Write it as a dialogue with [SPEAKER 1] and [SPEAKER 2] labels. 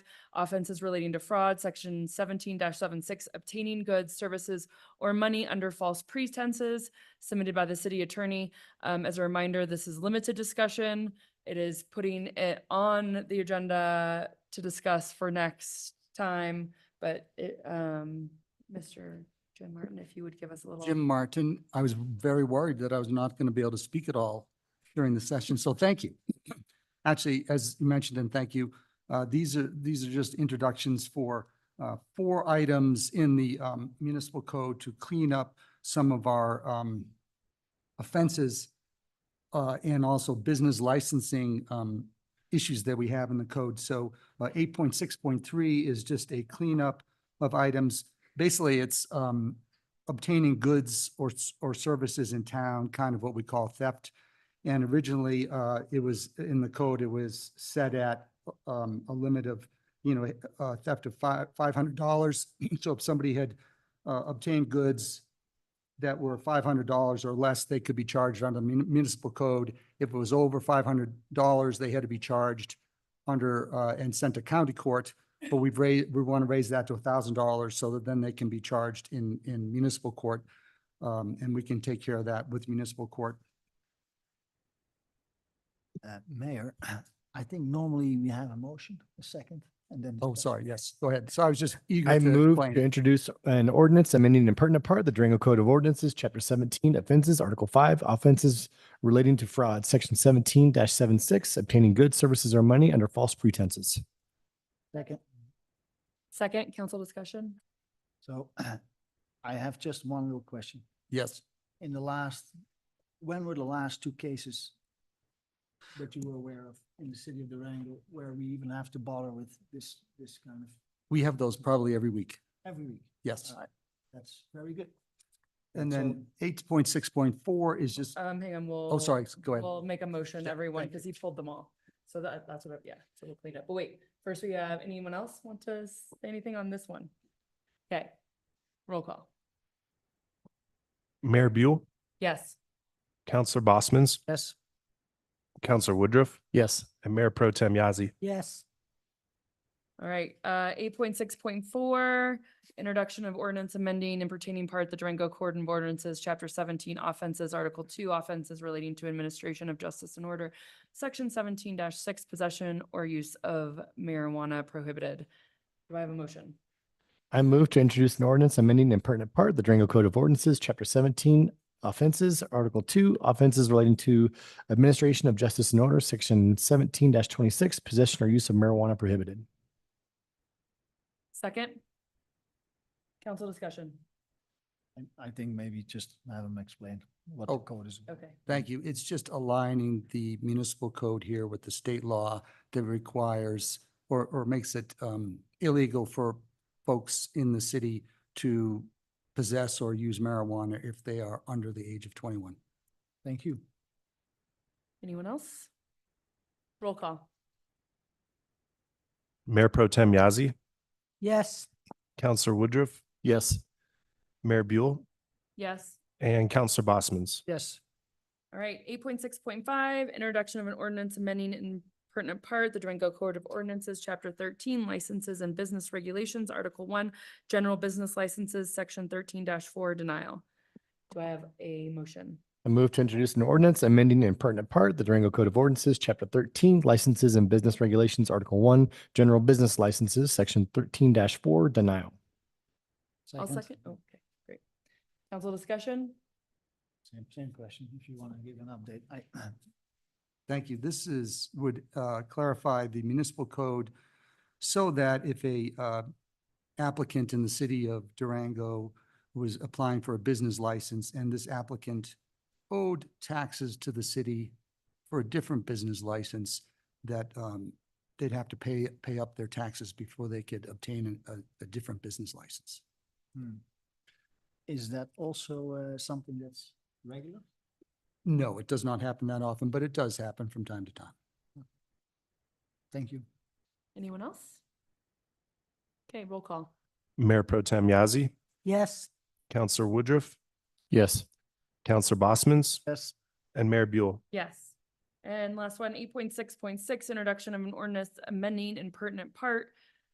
[SPEAKER 1] offenses relating to fraud, section seventeen 76 obtaining goods, services, or money under false pretenses, submitted by the city attorney. Um, as a reminder, this is limited discussion. It is putting it on the agenda to discuss for next time, but it, um, Mr. Jim Martin, if you would give us a little.
[SPEAKER 2] Jim Martin, I was very worried that I was not going to be able to speak at all during the session, so thank you. Actually, as you mentioned, and thank you, uh, these are, these are just introductions for uh, four items in the um, municipal code to clean up some of our um, offenses uh, and also business licensing um, issues that we have in the code. So uh, eight point six point three is just a cleanup of items. Basically, it's um, obtaining goods or, s- or services in town, kind of what we call theft. And originally, uh, it was, in the code, it was set at, um, a limit of, you know, uh, theft of five, five hundred dollars. So if somebody had, uh, obtained goods that were five hundred dollars or less, they could be charged under mun- municipal code. If it was over five hundred dollars, they had to be charged under, uh, and sent to county court. But we've raised, we want to raise that to a thousand dollars so that then they can be charged in, in municipal court. Um, and we can take care of that with municipal court.
[SPEAKER 3] Uh, Mayor, I think normally we have a motion, a second, and then.
[SPEAKER 2] Oh,
[SPEAKER 3] discuss.
[SPEAKER 2] sorry, yes, go ahead. So I was just eager to
[SPEAKER 4] I move
[SPEAKER 2] explain.
[SPEAKER 4] to introduce an ordinance amending an pertinent part of the Durango Code of Ordinances, Chapter seventeen, offenses, Article five, offenses relating to fraud, Section seventeen 76 obtaining goods, services, or money under false pretenses.
[SPEAKER 3] Second,
[SPEAKER 1] Second, council discussion?
[SPEAKER 3] so I have just one little question.
[SPEAKER 2] Yes,
[SPEAKER 3] In the last, when were the last two cases that you were aware of in the city of Durango where we even have to bother with this, this kind of,
[SPEAKER 2] we have those probably every week.
[SPEAKER 3] every week?
[SPEAKER 2] Yes.
[SPEAKER 3] All right, That's very good.
[SPEAKER 2] And
[SPEAKER 3] Uh, So-
[SPEAKER 2] then eight point six point four is just,
[SPEAKER 1] Um, hang on, we'll.
[SPEAKER 2] oh, sorry, go ahead.
[SPEAKER 1] We'll make a motion,
[SPEAKER 3] Yeah,
[SPEAKER 1] everyone,
[SPEAKER 3] thank you.
[SPEAKER 1] because he pulled them all. So that, that's what, I- yeah, so we'll clean up. But wait, first we have, anyone else want to say anything on this one? Okay, roll call.
[SPEAKER 5] Mayor Buell,
[SPEAKER 1] Yes.
[SPEAKER 5] Counselor Bosman's,
[SPEAKER 3] Yes.
[SPEAKER 5] Counselor Woodruff,
[SPEAKER 4] Yes.
[SPEAKER 5] and Mayor Pro Tem Yazi.
[SPEAKER 3] Yes.
[SPEAKER 1] All right, uh, eight point six point four, introduction of ordinance amending and pertaining part the Durango Court and Ordinances, Chapter seventeen offenses, Article two offenses relating to administration of justice and order, Section seventeen six possession or use of marijuana prohibited. Do I have a motion?
[SPEAKER 4] I move to introduce an ordinance amending an pertinent part of the Durango Code of Ordinances, Chapter seventeen, offenses, Article two, offenses relating to administration of justice and order, Section seventeen twenty-six, possession or use of marijuana prohibited.
[SPEAKER 1] Second? Council discussion.
[SPEAKER 3] And I think maybe just have them explain what
[SPEAKER 2] Oh.
[SPEAKER 3] the code is.
[SPEAKER 1] Okay.
[SPEAKER 2] Thank you. It's just aligning the municipal code here with the state law that requires or, or makes it um, illegal for folks in the city to possess or use marijuana if they are under the age of 21.
[SPEAKER 3] Thank you.
[SPEAKER 1] Anyone else? Roll call.
[SPEAKER 5] Mayor Pro Tem Yazi,
[SPEAKER 3] Yes.
[SPEAKER 5] Counselor Woodruff,
[SPEAKER 4] Yes.
[SPEAKER 5] Mayor Buell,
[SPEAKER 1] Yes.
[SPEAKER 5] and Counselor Bosman's.
[SPEAKER 3] Yes.
[SPEAKER 1] All right, eight point six point five, introduction of an ordinance amending in pertinent part the Durango Code of Ordinances, Chapter thirteen, licenses and business regulations, Article one, general business licenses, Section thirteen four, denial. Do I have a motion?
[SPEAKER 4] I move to introduce an ordinance amending in pertinent part the Durango Code of Ordinances, Chapter thirteen, Licenses and Business Regulations, Article one, General Business Licenses, Section thirteen four, denial.
[SPEAKER 1] I'll second. oh, Okay, great. Council discussion?
[SPEAKER 3] Same, same question, if you want to give an update. I,
[SPEAKER 2] Thank you. This is, would uh, clarify the municipal code so that if a uh, applicant in the city of Durango was applying for a business license and this applicant owed taxes to the city for a different business license, that um, they'd have to pay, pay up their taxes before they could obtain a, a different business license.
[SPEAKER 3] hmm. Is that also uh, something that's regular?
[SPEAKER 2] No, it does not happen that often, but it does happen from time to time.
[SPEAKER 3] Thank you.
[SPEAKER 1] Anyone else? Okay, roll call.
[SPEAKER 5] Mayor Pro Tem Yazi,
[SPEAKER 3] Yes.
[SPEAKER 5] Counselor Woodruff,
[SPEAKER 4] Yes.
[SPEAKER 5] Counselor Bosman's,
[SPEAKER 3] Yes.
[SPEAKER 5] and Mayor Buell.
[SPEAKER 1] Yes. And last one, eight point six point six, introduction of an ordinance amending in pertinent part